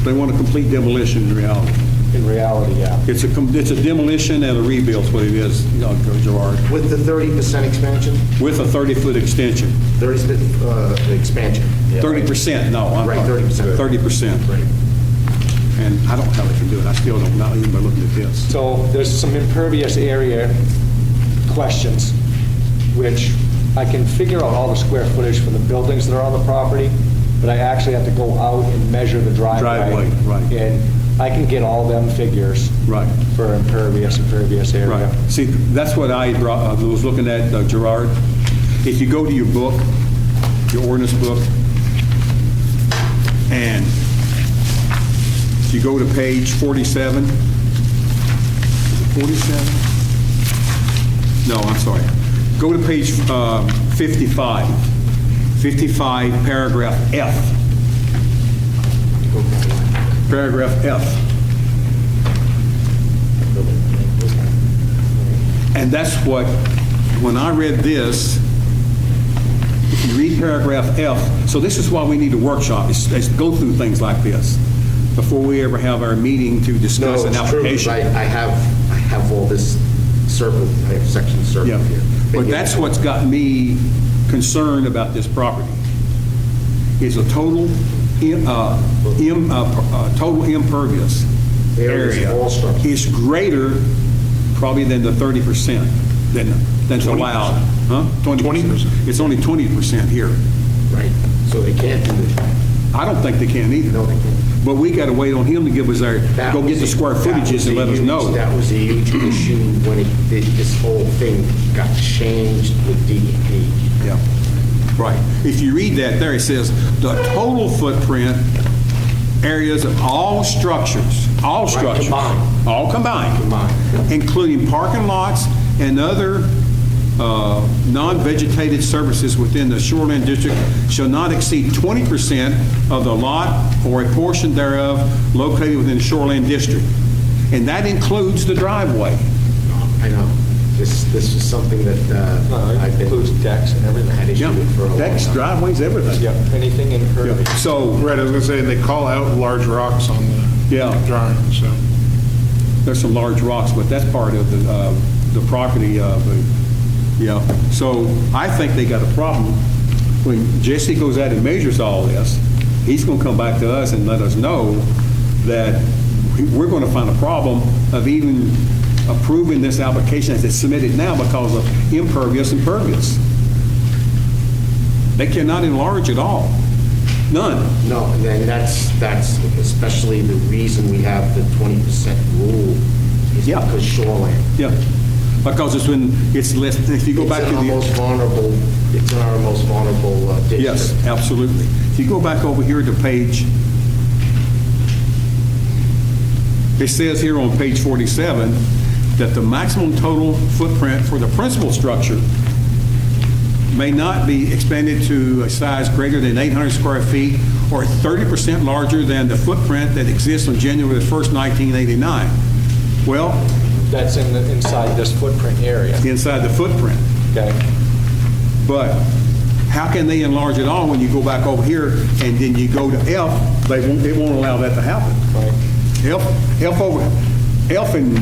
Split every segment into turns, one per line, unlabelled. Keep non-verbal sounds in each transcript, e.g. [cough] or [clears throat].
They want a complete demolition in reality.
in reality, yeah.
It's a, com- it's a demolition and a rebuild, is what it is, you know, Gerard,
With the 30% expansion,
with a 30-foot extension.
30, uh, expansion.
30%, no, I'm
Right,
sorry.
30%.
30%.
Right.
And I don't know how they can do it, I still don't, not even by looking at this.
So there's some impervious area questions, which I can figure out all the square footage for the buildings that are on the property, but I actually have to go out and measure the driveway.
Driveway, right.
And I can get all them figures.
Right.
For impervious, impervious area.
Right. See, that's what I brought- I was looking at, uh, Gerard. If you go to your book, your ordinance book, and if you go to page 47, is it 47? No, I'm sorry. Go to page uh, 55, 55, paragraph F. Paragraph F. And that's what, when I read this, if you read paragraph F, so this is why we need a workshop, is is to go through things like this before we ever have our meeting to
No,
discuss an
it's true, 'cause
application.
I, I have, I have all this circle, I have sections
Yeah,
circled here.
But that's what's got me concerned about this property, is a total, im- uh, im- uh, uh, total impervious
Areas of
area
all structures.
is greater probably than the 30% than, that's allowed. Huh? 20%. It's only 20% here.
Right, so they can't do it.
I don't think they can either.
No, they can't.
But we got to wait on him to give us our,
That
go get
was
the
a-
square
that was
footages and
a
let us
huge-
know.
That was a
[clears throat]
huge issue when it, thi- this whole thing got changed with E DEP.
Yeah, right. If you read that there, it says, "The total footprint areas of all structures, all
Right,
structures."
combined.
All combined.
Combined.
Including parking lots and other uh, non-vegetated services within the shoreline district shall not exceed 20% of the lot or a portion thereof located within the shoreline district. And that includes the driveway.
I know, this, this is something that uh, I've been.
Includes decks and everything.
Had issue
Yeah,
with for a long time.
Decks, driveways, everything.
Yeah, anything
Yeah.
impervious.
So,
Oh, Right, I was gonna say, and they call out large rocks on
Yeah.
the drawing, so.
There's some large rocks, but that's part of the, uh, the property of, the- yeah. So I think they got a problem. When Jesse goes out and measures all this, he's going to come back to us and let us know that we're going to find a problem of even approving this application as it's submitted now because of impervious and pervious. They cannot enlarge at all. None.
No, and then that's, that's especially the reason we have the 20% rule is
Yeah.
because shoreline.
Yeah. Because it's when, it's less, if you go back to the...
It's in our most vulnerable, it's in our most vulnerable uh, district.
Yes, absolutely. If you go back over here to page, it says here on page 47 that the maximum total footprint for the principal structure may not be expanded to a size greater than 800 square feet or 30% larger than the footprint that exists on January 1st, 1989. Well,
That's in the, inside this footprint area,
inside the footprint.
okay?
But how can they enlarge it all when you go back over here and then you go to F, they won't, they won't allow that to happen.
Right.
F, F over, F and,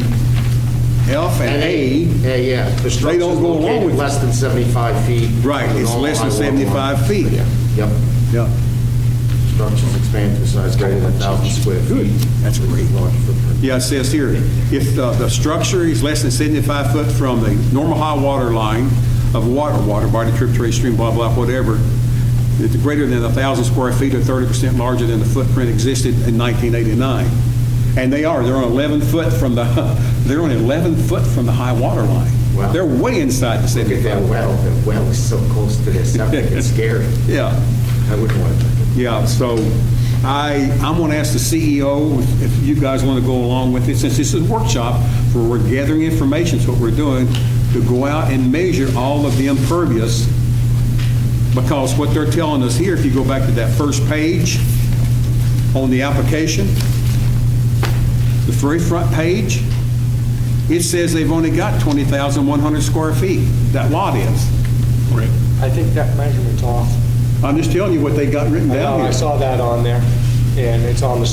F and A,
Yeah, yeah. The
They
structure's
don't go along
located
with it.
Less than 75 feet.
Right,
from the
it's
normal
less than
high water line.
75 feet.
Yeah, Yep,
yeah,
structures expand to a size greater than 1,000 square
Good.
feet.
That's great.
Large footprint.
yeah, it says here, if the, the structure is less than 75 foot from the normal high water line of water, water body, tributary stream, blah, blah, whatever, it's greater than 1,000 square feet or 30% larger than the footprint existed in 1989. And they are, they're on 11 foot from the, [laughs] they're on 11 foot from the high water line.
Wow.
They're way inside the
Look
75.
at that well, that well is so close to this, it's scary.
Yeah.
I wouldn't want it.
Yeah, so I, I'm going to ask the CEO if you guys want to go along with it, since this is a workshop, where we're gathering information, is what we're doing, to go out and measure all of the impervious, because what they're telling us here, if you go back to that first page on the application, the very front page, it says they've only got 20,100 square feet, that lot is.
I think that measurement's off.
I'm just telling you what they got written
I
down
know,
here.
I saw that on there, and it's on the